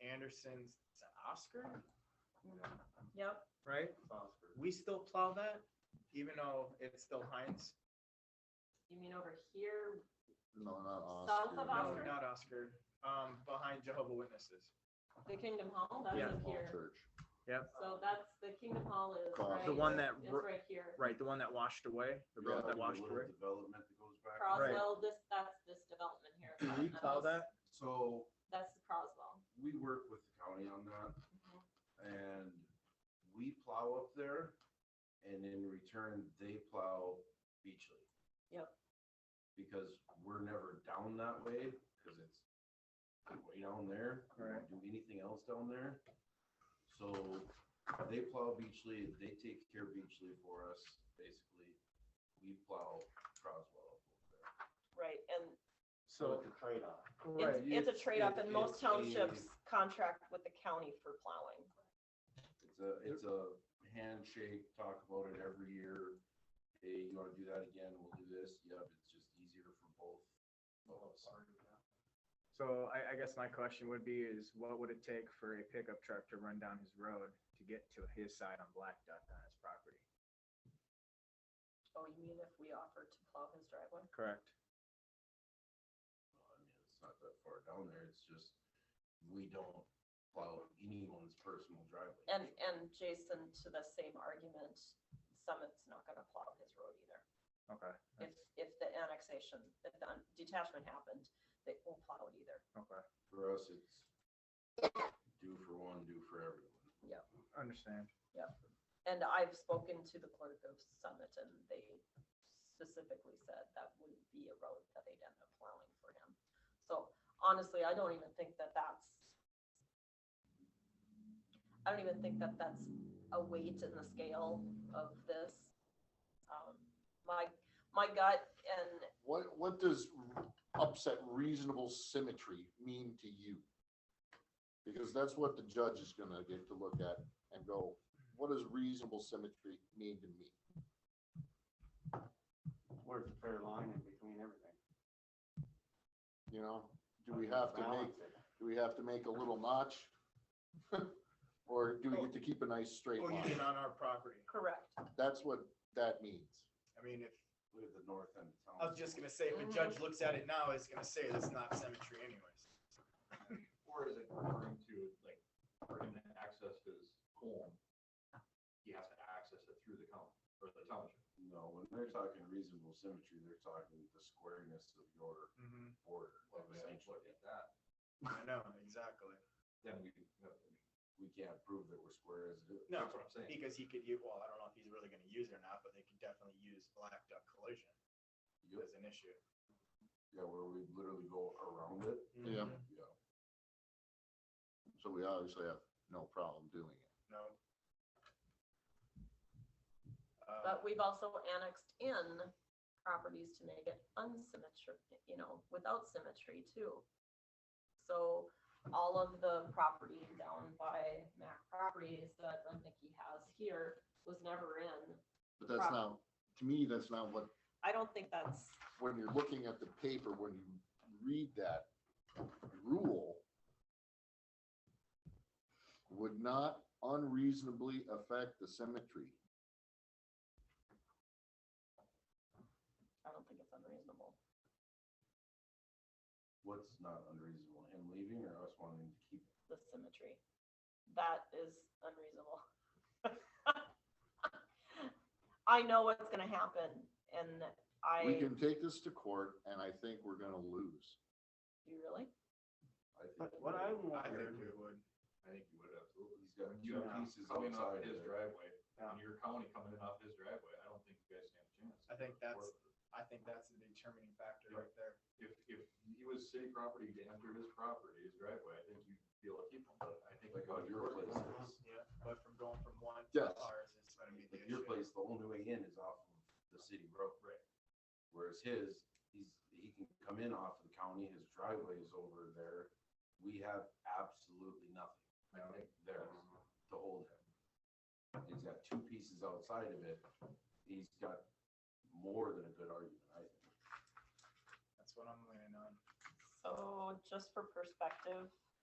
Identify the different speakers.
Speaker 1: Anderson's is it Oscar,
Speaker 2: Yep.
Speaker 1: right? We still plow that, even though it's still Heinz.
Speaker 2: You mean over here?
Speaker 3: No, not
Speaker 2: South
Speaker 3: Oscar.
Speaker 2: of
Speaker 1: No,
Speaker 2: Oscar?
Speaker 1: not Oscar. Um, behind Jehovah Witnesses.
Speaker 2: The Kingdom Hall? That's
Speaker 1: Yeah.
Speaker 2: up
Speaker 3: Small
Speaker 2: here.
Speaker 3: church.
Speaker 2: So that's, the Kingdom Hall is
Speaker 3: Across.
Speaker 2: right.
Speaker 3: The
Speaker 1: one that
Speaker 2: Is
Speaker 1: ro-
Speaker 2: right here.
Speaker 1: Right, the one that washed away, the road
Speaker 3: Yeah,
Speaker 1: that
Speaker 3: the
Speaker 1: washed
Speaker 4: little
Speaker 1: away.
Speaker 4: Development that goes back.
Speaker 1: Right.
Speaker 2: Croswell, this, that's this development here.
Speaker 1: Do we plow that?
Speaker 4: So
Speaker 2: That's the Croswell.
Speaker 4: we work with the county on that
Speaker 2: Mhm.
Speaker 4: and we plow up there and in return, they plow Beachley.
Speaker 2: Yep.
Speaker 4: Because we're never down that way because it's way down there. We don't Do anything else down there. So they plow Beachley, they take care of Beachley for us, basically. We plow Croswell up over there.
Speaker 5: Right, and
Speaker 1: So,
Speaker 4: a trade-off.
Speaker 1: right,
Speaker 4: Right,
Speaker 5: it's, it's a
Speaker 4: it's-
Speaker 5: trade-off
Speaker 4: it-
Speaker 5: and most
Speaker 4: it's a-
Speaker 5: townships contract with the county for plowing.
Speaker 4: It's a, it's a handshake, talk about it every year. Hey, you wanna do that again? We'll do this. Yep, it's just easier for both. of us.
Speaker 1: so I, I guess my question would be is what would it take for a pickup truck to run down his road to get to his side on Black Duck on his property?
Speaker 5: Oh, you mean if we offered to plow his driveway?
Speaker 1: Correct.
Speaker 4: Uh, I mean, it's not that far down there. It's just, we don't plow anyone's personal driveway.
Speaker 5: And, and Jason, to the same argument, Summit's not gonna plow his road either.
Speaker 1: Okay,
Speaker 5: If, if the annexation, if the detachment happened, they won't plow it either.
Speaker 1: okay,
Speaker 4: For us, it's do for one, do for everyone.
Speaker 1: understand.
Speaker 5: And I've spoken to the clerk of Summit and they specifically said that wouldn't be a road that they'd end up plowing for him. So honestly, I don't even think that that's, I don't even think that that's a weight in the scale of this. Um, My, my gut and
Speaker 3: What, what does upset reasonable symmetry mean to you? Because that's what the judge is gonna get to look at and go, what does reasonable symmetry mean to me?
Speaker 6: where's the fair line in between everything?
Speaker 3: You know, do we have to make,
Speaker 6: Balance it.
Speaker 3: do we have to make a little notch? Or do we get to keep a nice
Speaker 4: Oh,
Speaker 3: straight
Speaker 1: Or
Speaker 3: line?
Speaker 1: even on our property.
Speaker 5: correct,
Speaker 3: That's what that means.
Speaker 1: I mean, if,
Speaker 4: Look at the north end of town.
Speaker 1: I was just gonna say, if a judge looks at it now, he's gonna say that's not symmetry anyways.
Speaker 7: Or is it referring to like, for him to access his home? He has to access it through the county or the township.
Speaker 4: No, when they're talking reasonable symmetry, they're talking the squareness of your
Speaker 1: Mhm,
Speaker 4: border.
Speaker 7: Like, we can't look at that,
Speaker 1: I know, exactly.
Speaker 7: then we, have-
Speaker 4: We can't prove that we're square as it is.
Speaker 1: No,
Speaker 7: that's what I'm saying.
Speaker 1: because he could use, well, I don't know if he's really gonna use it or not, but they could definitely use Black Duck collision
Speaker 4: Yep.
Speaker 1: as an issue.
Speaker 4: Yeah, where we literally go around it.
Speaker 3: Yeah.
Speaker 1: Mhm.
Speaker 4: Yeah.
Speaker 3: So we obviously have no problem doing it.
Speaker 1: No. Uh,
Speaker 5: but we've also annexed in properties to make it unsymmetric, you know, without symmetry too. So all of the property down by Mac Properties that Nikki has here was never in.
Speaker 3: But that's not, to me, that's not what
Speaker 5: I don't think that's,
Speaker 3: when you're looking at the paper, when you read that rule, would not unreasonably affect the symmetry.
Speaker 5: I don't think it's unreasonable.
Speaker 4: What's not unreasonable, him leaving or us wanting to keep? it?
Speaker 5: the symmetry. That is unreasonable. I know what's gonna happen and I,
Speaker 3: We
Speaker 5: do
Speaker 3: can take this to court and I think we're gonna lose.
Speaker 5: you really?
Speaker 4: I think
Speaker 6: But
Speaker 4: it
Speaker 6: what I
Speaker 4: would.
Speaker 1: I
Speaker 6: wonder,
Speaker 1: think we would.
Speaker 4: I think you would absolutely, he's got
Speaker 7: You
Speaker 4: two
Speaker 6: Yeah.
Speaker 4: pieces
Speaker 7: Coming off
Speaker 4: outside of
Speaker 7: his
Speaker 4: it.
Speaker 7: driveway,
Speaker 6: Yeah.
Speaker 7: and your county coming in off his driveway, I don't think you guys stand a chance.
Speaker 1: I think that's- I think that's the determining factor right there.
Speaker 7: If, if he was city property to enter his property, his driveway, I think you'd be able to keep him, but I think.
Speaker 4: Like on your place is,
Speaker 1: Yeah. But from going from one to
Speaker 3: Yes.
Speaker 1: ours, it's gonna be the
Speaker 4: like your
Speaker 1: issue.
Speaker 4: place, the only way in is off of the city road. Right. Whereas his, he's, he can come in off of the county, his driveway is over there. We have absolutely nothing.
Speaker 7: I think
Speaker 4: there to hold him. And He's got two pieces outside of it. He's got more than a good argument, I think.
Speaker 1: That's what I'm leaning on.
Speaker 5: So just for perspective,